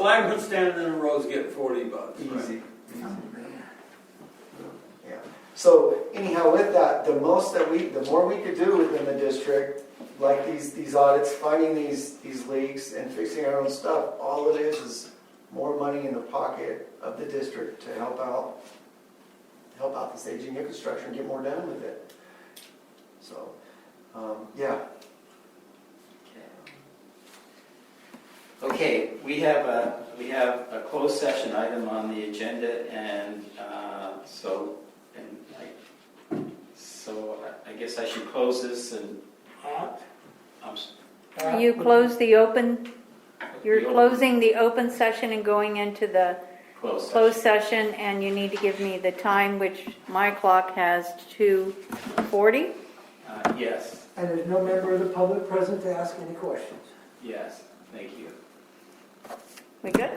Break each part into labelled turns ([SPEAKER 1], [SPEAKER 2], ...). [SPEAKER 1] lineman standing in the road's getting forty bucks.
[SPEAKER 2] Easy.
[SPEAKER 3] Yeah. So anyhow, with that, the most that we, the more we could do within the district, like these, these audits, finding these, these leaks and fixing our own stuff, all it is is more money in the pocket of the district to help out, help out this aging infrastructure and get more done with it. So, um, yeah,
[SPEAKER 2] Okay, we have a, we have a closed session item on the agenda, and uh, so, and I, so I- I guess I should close this and, I'm, s-
[SPEAKER 4] You close the open,
[SPEAKER 2] Uh,
[SPEAKER 4] you're
[SPEAKER 2] the open-
[SPEAKER 4] closing the open session and going into the
[SPEAKER 2] Closed
[SPEAKER 4] closed
[SPEAKER 2] session.
[SPEAKER 4] session, and you need to give me the time, which my clock has 2:40.
[SPEAKER 2] Uh, Yes,
[SPEAKER 5] And there's no member of the public present to ask any questions.
[SPEAKER 2] yes, thank you,
[SPEAKER 4] We good?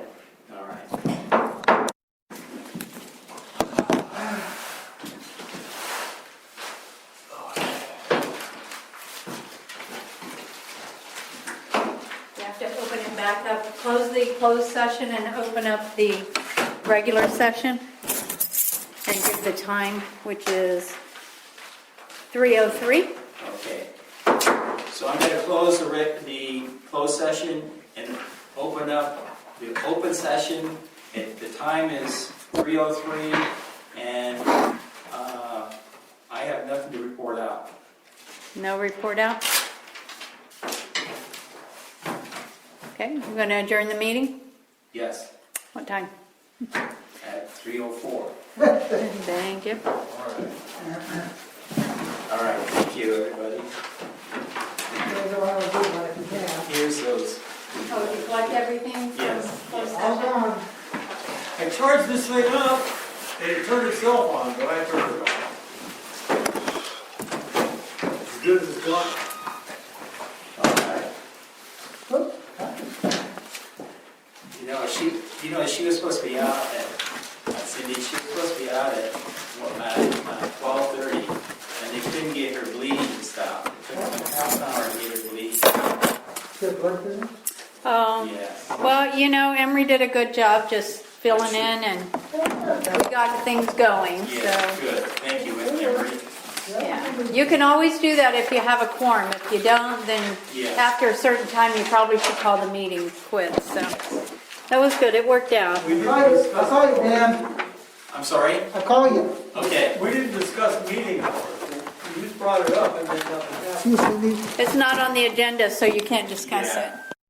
[SPEAKER 2] all right.
[SPEAKER 4] You have to open it back up, close the closed session and open up the regular session, and give the time, which is 3:03.
[SPEAKER 2] Okay. So I'm going to close the, rec- the closed session and open up the open session. It- The time is 3:03 and uh, I have nothing to report out.
[SPEAKER 4] No report out? Okay, we're going to adjourn the meeting?
[SPEAKER 2] Yes,
[SPEAKER 4] What time?
[SPEAKER 2] at 3:04.
[SPEAKER 4] Thank you.
[SPEAKER 2] All right, thank you, everybody.
[SPEAKER 5] There's a lot of good one if you can.
[SPEAKER 2] Here's those.
[SPEAKER 4] Oh, you collect everything? from
[SPEAKER 2] Yes.
[SPEAKER 4] closed
[SPEAKER 5] All
[SPEAKER 4] session?
[SPEAKER 5] gone.
[SPEAKER 1] I charged this thing up, and it turned itself on, but I turned it off. As good as it's got.
[SPEAKER 2] All right.
[SPEAKER 5] Whoop.
[SPEAKER 2] You know, she, you know, she was supposed to be out at, Cindy, she was supposed to be out at, what, at twelve thirty, and they couldn't get her bleeding to stop. It took them a half an hour to get her bleeding,
[SPEAKER 5] Good work, isn't it?
[SPEAKER 4] Um,
[SPEAKER 2] yes.
[SPEAKER 4] Well, you know, Emery did a good job just filling in and we got things going,
[SPEAKER 2] Yeah,
[SPEAKER 4] so.
[SPEAKER 2] good, thank you, Emery.
[SPEAKER 4] yeah. You can always do that if you have a quorum. If you don't, then
[SPEAKER 2] Yes.
[SPEAKER 4] after a certain time, you probably should call the meeting quits, so. That was good, it worked out.
[SPEAKER 1] We
[SPEAKER 5] I
[SPEAKER 1] didn't
[SPEAKER 5] I
[SPEAKER 1] discuss,
[SPEAKER 5] saw you, Dan.
[SPEAKER 2] I'm sorry?
[SPEAKER 5] I call you.
[SPEAKER 2] Okay,
[SPEAKER 1] we didn't discuss meeting hours. You just brought it up and then nothing happened.
[SPEAKER 5] See you, Cindy.
[SPEAKER 4] It's not on the agenda, so you can't discuss
[SPEAKER 2] Yeah.
[SPEAKER 4] it.